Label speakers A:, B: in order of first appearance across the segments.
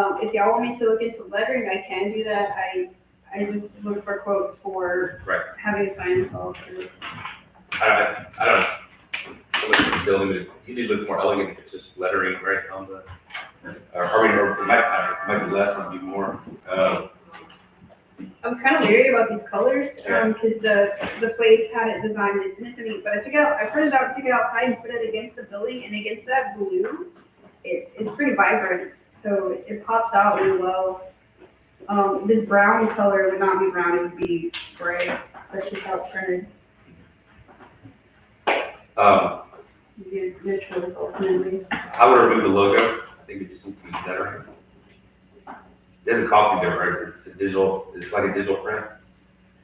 A: Um, if y'all want me to look into lettering, I can do that. I, I just look for quotes for
B: Right.
A: having a sign installed. too.
B: I, I don't know. Looks building, he did look more elegant, it's just lettering right on the, or are we, or it might, it might be less, might be more. Uh,
A: I was kind of leery about these colors, um, because the, the place had it designed, they sent it to me, but I took it out, I printed it out, took it outside and put it against the building and against that blue. It, it's pretty vibrant, so it- it pops out really well. Um, this brown color would not be brown, it would be gray, that's just how it's printed,
B: um,
A: the the choice ultimately.
B: I would remove the logo, I think it just needs to be lettering. It Doesn't cost you different, it's a digital, it's like a digital print.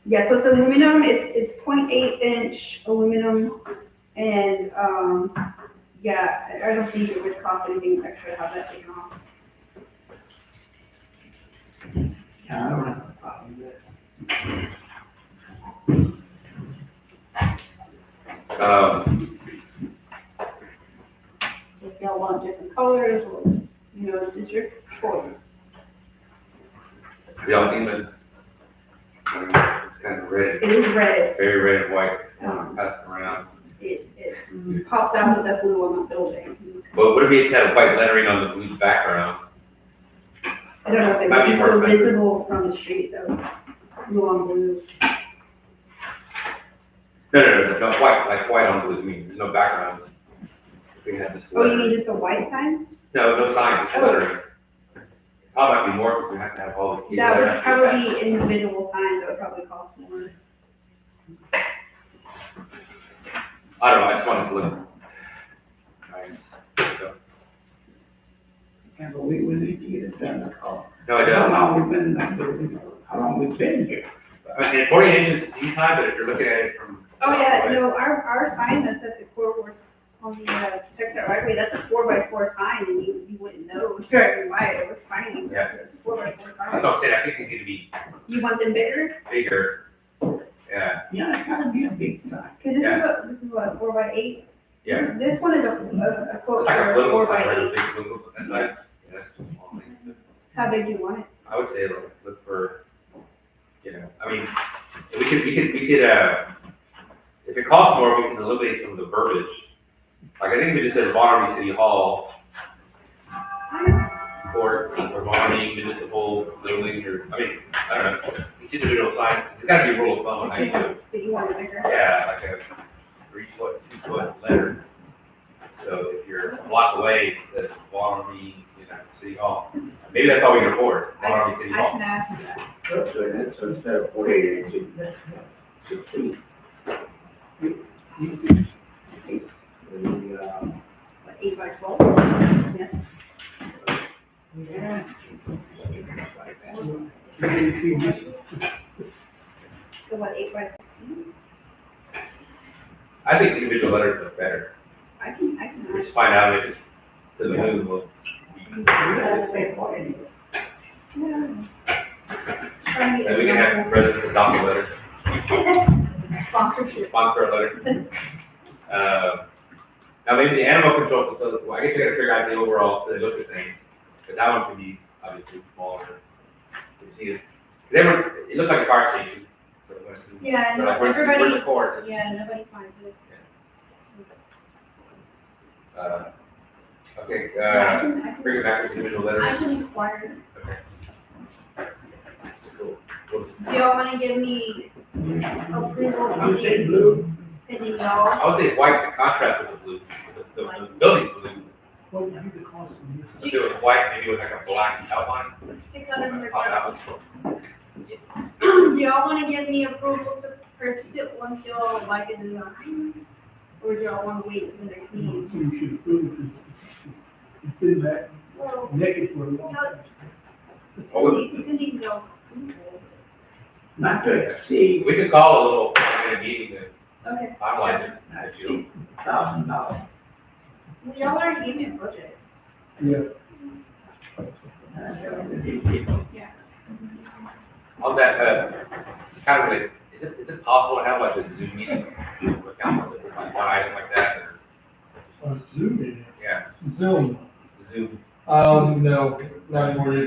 A: Yeah, so it's aluminum, it's, it's point eight inch aluminum, and, um, yeah, I- I don't think it would cost anything extra to have that taken off.
C: Yeah, I don't have a problem with it.
B: Um,
A: if y'all want different colors or, you know, it's your choice.
B: have y'all seen the? I mean, It's kind of red,
A: It is red,
B: very red and white,
A: um,
B: passing around.
A: it, it pops out with that blue on the building.
B: But would it be a tad of white lettering on the blue background?
A: I don't know if it
B: Might
A: would
B: be
A: be
B: more
A: so
B: effective.
A: visible from the street though, blue on blue.
B: No, no, no, no, no, white, like white on blue, I mean, there's no background. We have this
A: Oh, you
B: lettering.
A: mean just a white sign?
B: No, no sign, just
A: Oh.
B: lettering. Probably might be more, because we have to have all the key
A: That
B: letters.
A: would probably be individual signs, that would probably cost more.
B: I don't know, I just wanted to look. Nice.
C: Yeah, but we, we need to get it done. That's all.
B: No, I
C: How
B: don't.
C: long we been in that building? How long we been here?
B: I mean, forty inches is high, but if you're looking at it from.
A: Oh, yeah, no, our, our sign that's at the corridor on the, uh, Texas right away, that's a four by four sign and you, you wouldn't know very why it was tiny.
B: Yeah.
A: It's a four by four
B: That's
A: sign.
B: what I'm saying, I think they need to be
A: You want them bigger?
B: bigger. Yeah,
C: Yeah, it's gotta be a big sign.
A: Cause this is a, this is what, a four by eight? This-
B: yeah.
A: This one is a, a, a quote
B: Like a
A: for a four
B: political sign, right,
A: by
B: a
A: eight.
B: big political, that's like, yeah, that's just small things, but-
A: It's How big do you want it?
B: I would say look, look for, you know, I mean, we could, we could, we could, uh, if it costs more, we can eliminate some of the verbiage. Like, I think if it just says Bonnerman City Hall, court, or Bonnerman Municipal Building, or, I mean, I don't know, each individual sign, there's gotta be a rule of thumb on how Oh, you do it.
A: But you want it bigger?
B: Yeah, like a three foot, two foot letter. So if you're a block away, it says Bonnerman, you know, City Hall, maybe that's all we can afford, Bonnerman City
A: I
B: Hall.
A: can ask uh, you that.
D: That's right, that's instead of forty-eight inches, that's sixteen. And, uh,
A: What, eight by twelve? Yeah.
C: Yeah. Maybe we should-
A: So what, eight by sixteen?
B: I think individual letters look better.
A: I can, I can
B: We
A: ask.
B: just find out if it's to the moon. we'll-
C: we gotta say forty.
A: Yeah. Trying to
B: Then we can have residents adopt a letter,
A: have. Sponsorship.
B: sponsor a letter. Uh, Now, maybe the animal control facility, well, I guess we gotta figure out the overall, do they look the same? But that one could be obviously smaller. You see it- They were, it looks like a car station. so we're gonna assume-
A: Yeah,
B: We're like, where's, the- where's the
A: everybody,
B: court?
A: yeah, nobody finds it.
B: Uh, Okay,
A: I
B: uh,
A: can, I can,
B: bring it back to the individual letter.
A: I can inquire.
B: Okay. Cool. Cool.
A: Do y'all wanna give me approval?
C: I'm saying blue.
A: And then y'all,
B: I would say white to contrast with the blue, the, the, the building blue.
C: What would be the cost of this?
B: So If it was white, maybe with like a black outline,
A: six
B: that
A: hundred
B: would
A: and
B: pop
A: thirty.
B: out.
A: Do y'all wanna give me approval to purchase it once y'all like the design? Or do y'all wanna wait till the next meeting?
C: We should prove it. It's been that
A: Well,
C: naked for a long time.
B: Or we-
A: you can leave y'all. approval.
C: Not to exceed,
B: We could call a little, I mean, a meeting
A: Okay,
B: to finalize it.
C: not exceed thousand dollars.
A: well, y'all already gave me a budget.
C: Yeah.
B: On that, uh, it's kind of like, is it, is it possible to have like a Zoom meeting with council, if it's like one item like that, or,
E: Or Zoom meeting.
B: yeah,
E: Zoom.
B: Zoom?
E: Um, no, not anymore.